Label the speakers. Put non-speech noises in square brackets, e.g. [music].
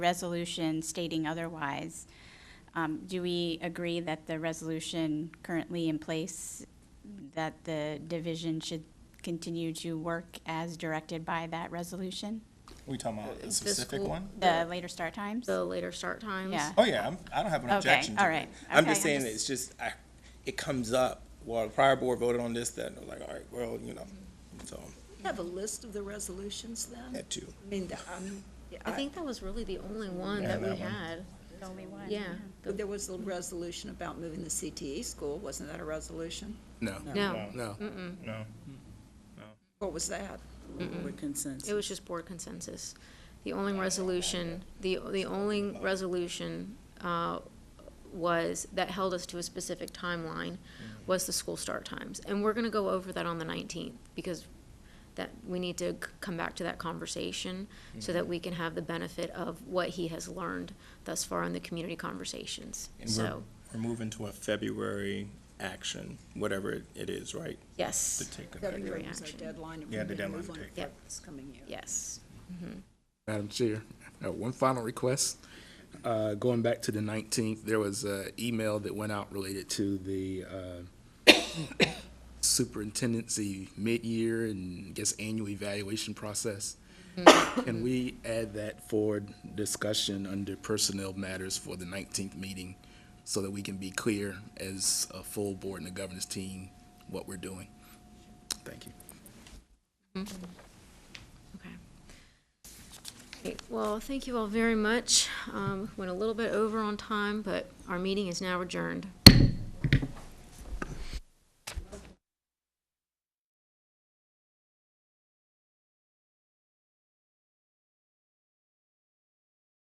Speaker 1: resolution stating otherwise. Um, Do we agree that the resolution currently in place, that the division should continue to work as directed by that resolution?
Speaker 2: We talking about
Speaker 3: The
Speaker 2: a specific
Speaker 3: school-
Speaker 2: one?
Speaker 1: The later start times?
Speaker 3: the later start times.
Speaker 1: Yeah.
Speaker 2: Oh, yeah, I'm, I don't have an
Speaker 1: Okay,
Speaker 2: objection to
Speaker 1: all
Speaker 2: it.
Speaker 1: right.
Speaker 4: I'm
Speaker 1: Okay,
Speaker 4: just saying
Speaker 1: I'm
Speaker 4: it's just I, it comes up. Well, the prior board voted on this, that, and I was like, all right, well, you know, so
Speaker 5: Have a list of the resolutions then?
Speaker 4: that too.
Speaker 5: I mean, the- um, yeah,
Speaker 3: I think that was really the only one
Speaker 2: Yeah,
Speaker 3: that we
Speaker 2: that one.
Speaker 3: had.
Speaker 1: The only one.
Speaker 3: Yeah.
Speaker 5: but there was a resolution about moving the CTE school, wasn't that a resolution?
Speaker 4: No,
Speaker 3: No,
Speaker 4: no.
Speaker 2: No.
Speaker 5: What was that?
Speaker 6: With consensus.
Speaker 3: it was just board consensus. The only resolution, the, the only resolution, uh, was, that held us to a specific timeline was the school start times. And we're gonna go over that on the nineteenth because that, we need to c- come back to that conversation so that we can have the benefit of what he has learned thus far in the community conversations.
Speaker 4: And we're,
Speaker 3: So,
Speaker 4: we're moving to a February action, whatever it- it is, right?
Speaker 3: yes.
Speaker 4: To take effect.
Speaker 5: February was our
Speaker 3: action.
Speaker 5: deadline. and
Speaker 2: Yeah,
Speaker 5: we're
Speaker 2: the
Speaker 5: gonna
Speaker 2: deadline
Speaker 5: move
Speaker 2: to
Speaker 5: on
Speaker 2: take
Speaker 5: for
Speaker 3: effect.
Speaker 5: This coming year.
Speaker 3: Yes.
Speaker 7: Madam Chair, I have one final request. Uh, Going back to the 19th, there was an email that went out related to the uh, [coughs] superintendency mid-year and I guess annual evaluation process. Can we add that for discussion under personnel matters for the 19th meeting so that we can be clear as a full board and the governance team what we're doing? Thank you.
Speaker 3: Okay. Great. Well, thank you all very much. Um, Went a little bit over on time, but our meeting is now adjourned.